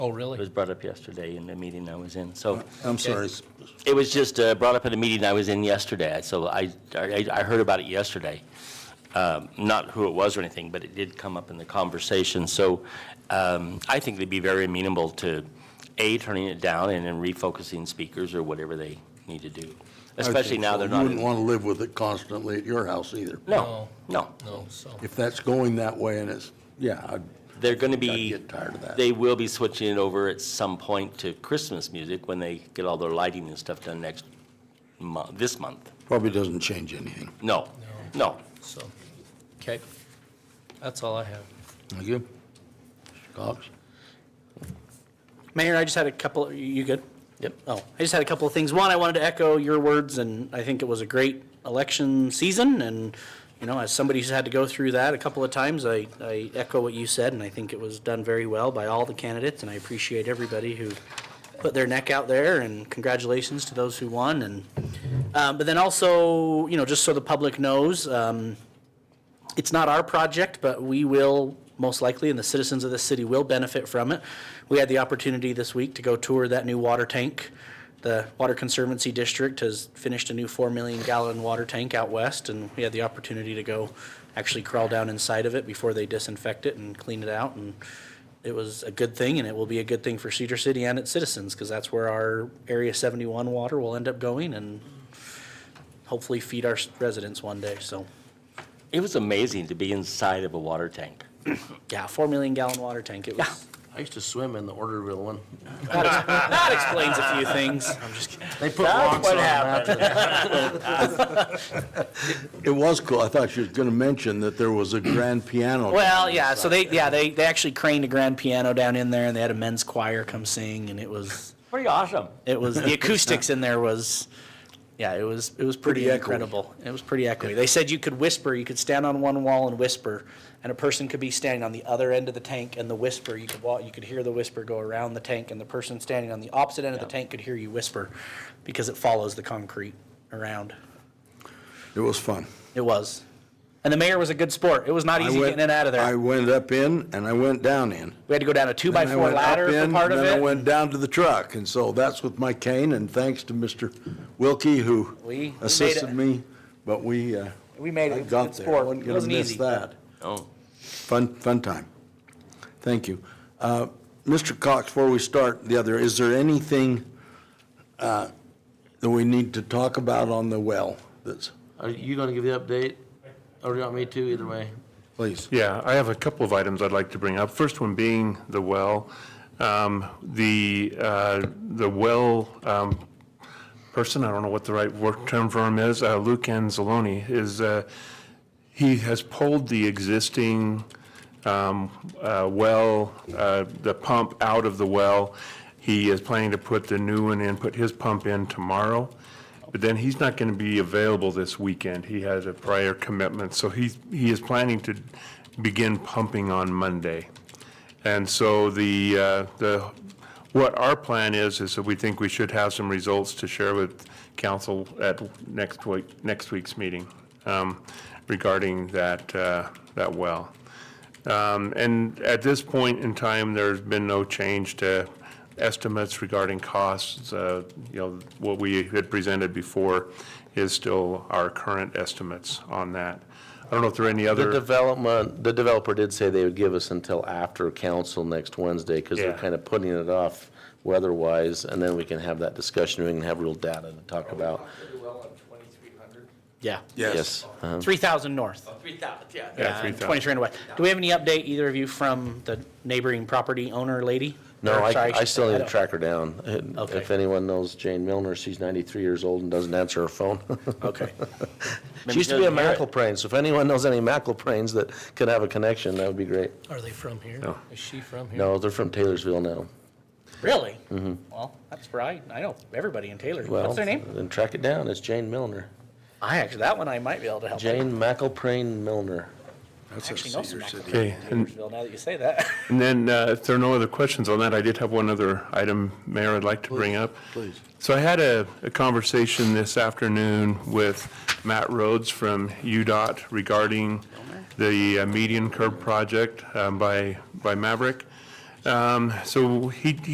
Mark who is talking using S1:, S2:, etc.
S1: Oh,
S2: It was
S1: really?
S2: brought up yesterday in the meeting I was in, so.
S3: I'm sorry, s-
S2: It was just uh, brought up at a meeting I was in yesterday, so I, I I heard about it yesterday. Um, Not who it was or anything, but it did come up in the conversation, so um, I think they'd be very amenable to, A, turning it down and then refocusing speakers or whatever they need to do, especially now they're
S3: You
S2: not. in-
S3: wouldn't want to live with it constantly at your house either.
S2: No, no.
S1: No, Oh, so,
S3: If that's going that way and it's, yeah, I'd-
S2: They're going to
S3: I'd
S2: be,
S3: get tired of that.
S2: they will be switching it over at some point to Christmas music when they get all their lighting and stuff done next month, this month.
S3: Probably doesn't change anything.
S2: No, no.
S1: so, okay. That's all I have.
S3: Thank you. Mr. Cox?
S4: Mayor, I just had a couple, you- you good?
S2: Yep.
S4: Oh, I just had a couple of things. One, I wanted to echo your words, and I think it was a great election season, and, you know, as somebody who's had to go through that a couple of times, I, I echo what you said, and I think it was done very well by all the candidates, and I appreciate everybody who put their neck out there, and congratulations to those who won, and, um, but then also, you know, just so the public knows, um, it's not our project, but we will most likely, and the citizens of the city will benefit from it. We had the opportunity this week to go tour that new water tank. The Water Conservancy District has finished a new 4 million gallon water tank out west, and we had the opportunity to go actually crawl down inside of it before they disinfect it and clean it out. And it was a good thing, and it will be a good thing for Cedar City and its citizens, because that's where our Area 71 water will end up going and hopefully feed our residents one day, so.
S2: It was amazing to be inside of a water tank.
S4: Yeah, four million gallon water tank. It was.
S5: I used to swim in the Orderville one.
S4: that explains a few things. I'm just kidding.
S5: They put locks on
S2: what
S5: them after that.
S3: It was cool. I thought you was going to mention that there was a grand piano.
S4: Well, yeah. So they, yeah, they, they actually craned a grand piano down in there, and they had a men's choir come sing, and it was,
S2: Pretty awesome.
S4: it was the acoustics in there was, yeah, it was, it was pretty,
S3: Pretty echoey.
S4: incredible. It was pretty echoey. They said you could whisper. You could stand on one wall and whisper, and a person could be standing on the other end of the tank, and the whisper you could walk, you could hear the whisper go around the tank, and the person standing on the opposite end of the tank could hear you whisper, because it follows the concrete around.
S3: It was fun.
S4: It was. And the mayor was a good sport. It was not
S3: I
S4: easy
S3: went-
S4: getting it out of
S3: I
S4: there.
S3: went up in and I went down in.
S4: We had to go down a two by
S3: Then I
S4: four
S3: went up
S4: ladder for
S3: in,
S4: part of
S3: Then I
S4: it.
S3: went down to the truck, and so that's with my cane, and thanks to Mr. Wilkie who
S4: We- we made it.
S3: assisted me, but we, uh,
S4: We made it.
S3: I
S4: It was a
S3: got
S4: good
S3: there.
S4: sport.
S3: I wasn't
S4: It
S3: gonna
S4: wasn't
S3: miss
S4: easy.
S3: that.
S2: Oh.
S3: Fun, fun time. Thank you. Uh, Mr. Cox, before we start the other, is there anything uh, that we need to talk about on the well? That's,
S5: Are you gonna give the update? Or do you want me to, either way?
S3: please.
S6: Yeah, I have a couple of items I'd like to bring up. First one being the well. Um, The, uh, the well um, person, I don't know what the right work term for him is, uh, Luke Anzalone, is, uh, he has pulled the existing um, uh, well, uh, the pump out of the well. He is planning to put the new one in, put his pump in tomorrow. But then he's not going to be available this weekend. He has a prior commitment, so he, he is planning to begin pumping on Monday. And so the, uh, the, what our plan is, is that we think we should have some results to share with council at next week, next week's meeting um, regarding that, uh, that well. Um, And at this point in time, there's been no change to estimates regarding costs. Uh, You know, what we had presented before is still our current estimates on that. I don't know if there are any
S5: The
S6: other,
S5: development, the developer did say they would give us until after council next Wednesday, because they're
S6: Yeah.
S5: kind of putting it off weather-wise, and then we can have that discussion, we can have real data to talk about.
S4: Yeah.
S5: Yes. Uh-huh.
S4: Three thousand north.
S6: yeah,
S4: and
S6: 3,000.
S4: Twenty-three away. Do we have any update, either of you, from the neighboring property owner lady?
S5: No,
S4: Or,
S5: I,
S4: sorry,
S5: I still need to
S4: don't-
S5: track her down.
S4: Okay.
S5: If anyone knows Jane Milner, she's ninety-three years old and doesn't answer her phone.
S4: Okay.
S5: She used to be a
S2: doesn't hear it.
S5: McElprain, so if anyone knows any McElprains that could have a connection, that would be great.
S1: Are they from here?
S6: No.
S1: Is she from here?
S5: No, they're from Taylorsville now.
S4: Really? Well, that's where I, I know everybody in Taylor.
S5: Mm-hmm. Well,
S4: What's their name?
S5: Then track it down. It's Jane Milner.
S4: I actually, that one I might be able to help. I
S5: Jane McElprain Milner.
S4: Actually know some people
S6: Okay,
S4: in
S6: and
S4: Taylorsville, now that you say that.
S6: And then, uh, if there are no other questions on that, I did have one other item, Mayor, I'd like to bring up.
S3: please.
S6: So I had a a conversation this afternoon with Matt Rhodes from UDOT regarding the uh, median curb project um, by by Maverick. Um, So he,